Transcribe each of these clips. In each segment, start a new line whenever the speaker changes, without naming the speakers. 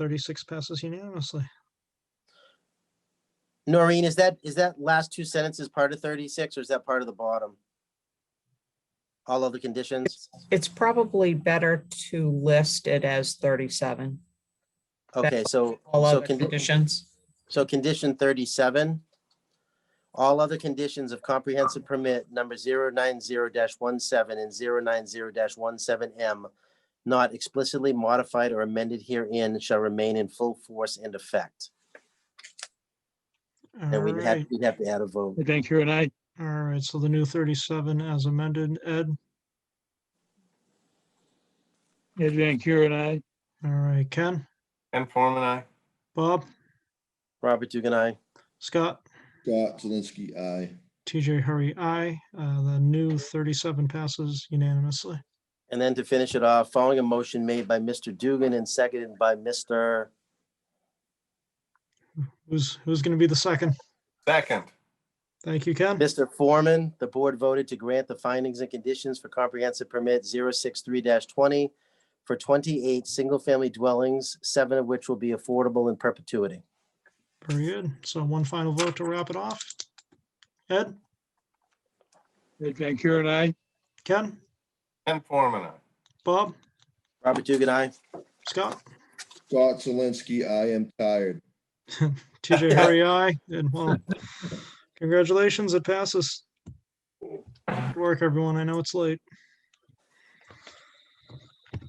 Thirty-six passes unanimously.
Noreen, is that, is that last two sentences part of thirty-six or is that part of the bottom? All other conditions?
It's probably better to list it as thirty-seven.
Okay, so,
All
so,
other
condi-
conditions.
so condition thirty-seven. All other conditions of comprehensive permit number 090-17 and 090-17 M not explicitly modified or amended herein shall remain in full force and effect. And we'd have,
Alright,
we'd have to add a vote.
Thank you, and I,
alright, so the new thirty-seven as amended, Ed,
Ed Van Kuren, I.
alright, Ken,
Ken Forman, aye.
Bob,
Robert Dugan, I.
Scott,
Scott Zelinski, aye.
TJ Hurry, I, uh, the new thirty-seven passes unanimously.
And then to finish it off, following a motion made by Mr. Dugan and seconded by Mr.
Who's, who's gonna be the second?
Second,
Thank you, Ken.
Mr. Foreman, the board voted to grant the findings and conditions for comprehensive permit 063 twenty for twenty-eight single-family dwellings, seven of which will be affordable in perpetuity.
Very good. So one final vote to wrap it off. Ed,
Ed Van Kuren, I.
Ken,
Ken Forman, aye.
Bob,
Robert Dugan, I.
Scott,
Scott Zelinski, I am tired.
TJ Hurry, I, and well, congratulations, it passes. Good work, everyone. I know it's late.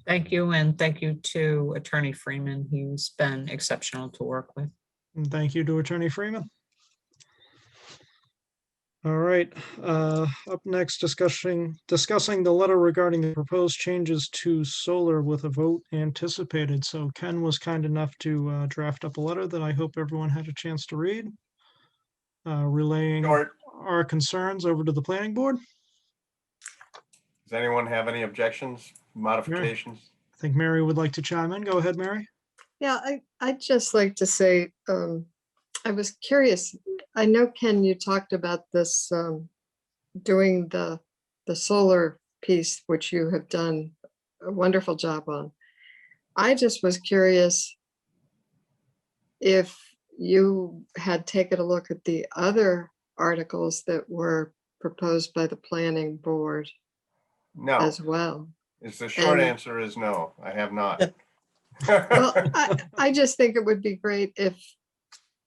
Thank you, and thank you to Attorney Freeman. He's been exceptional to work with.
And thank you to Attorney Freeman. All right, uh, up next, discussing, discussing the letter regarding the proposed changes to solar with a vote anticipated. So Ken was kind enough to uh, draft up a letter that I hope everyone had a chance to read. uh, Relaying
Short,
our concerns over to the planning board.
does anyone have any objections, modifications?
I think Mary would like to chime in. Go ahead, Mary.
Yeah, I, I'd just like to say, um, I was curious, I know, Ken, you talked about this, um, doing the, the solar piece, which you have done a wonderful job on. I just was curious if you had taken a look at the other articles that were proposed by the planning board
No,
as well.
is the short
Um,
answer is no, I have not.
Well, I, I just think it would be great if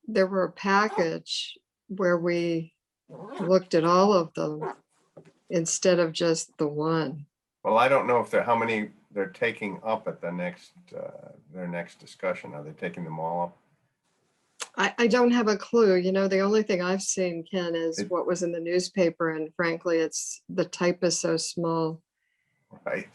there were a package where we looked at all of them instead of just the one.
Well, I don't know if they're, how many they're taking up at the next, uh, their next discussion. Are they taking them all up?
I, I don't have a clue, you know, the only thing I've seen, Ken, is
It-
what was in the newspaper, and frankly, it's, the type is so small.
Right.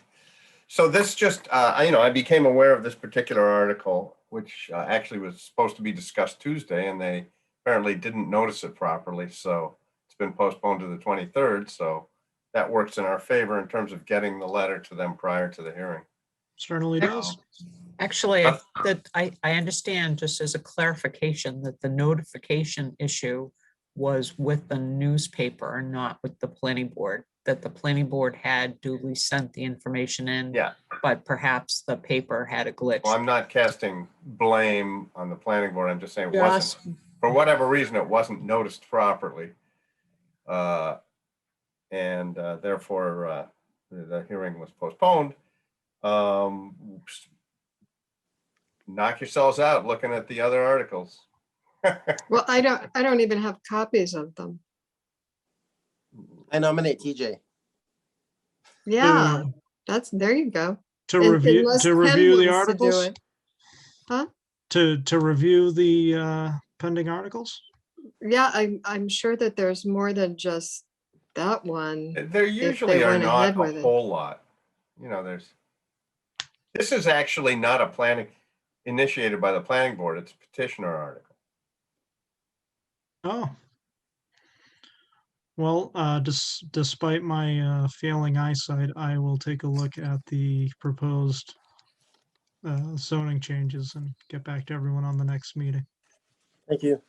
So this just, uh, I- you know, I became aware of this particular article, which uh, actually was supposed to be discussed Tuesday and they apparently didn't notice it properly. So it's been postponed to the 23rd. So that works in our favor in terms of getting the letter to them prior to the hearing.
Certainly does.
Actually, I
Uh,
think that I, I understand, just as a clarification, that the notification issue was with the newspaper and not with the planning board, that the planning board had duly sent the information in.
Yeah.
But perhaps the paper had a glitch.
Well, I'm not casting blame on the planning board. I'm just saying it wasn't
Just
for whatever reason, it wasn't noticed properly. Uh, And uh, therefore, uh, the the hearing was postponed. Um, oops. Knock yourselves out looking at the other articles.
Well, I don't, I don't even have copies of them.
I nominate TJ.
Yeah,
To-
that's, there you go.
To
Un-
review,
unless
to
Ken
review the
wants to do
articles,
it.
to, to review the uh, pending articles.
Yeah, I'm, I'm sure that there's more than just that one.
There usually are
went
not
ahead with
a
it.
whole lot. You know, there's, this is actually not a planning initiated by the planning board. It's a petitioner article.
Oh. Well, uh, des- despite my uh, failing eyesight, I will take a look at the proposed uh, zoning changes and get back to everyone on the next meeting.
Thank you.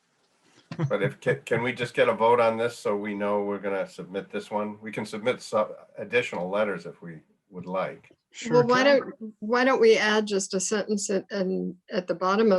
But if, ca- can we just get a vote on this so we know we're going to submit this one? We can submit some additional letters if we would like.
Sure
Well, why
can.
don't, why don't we add just a sentence at- and at the bottom of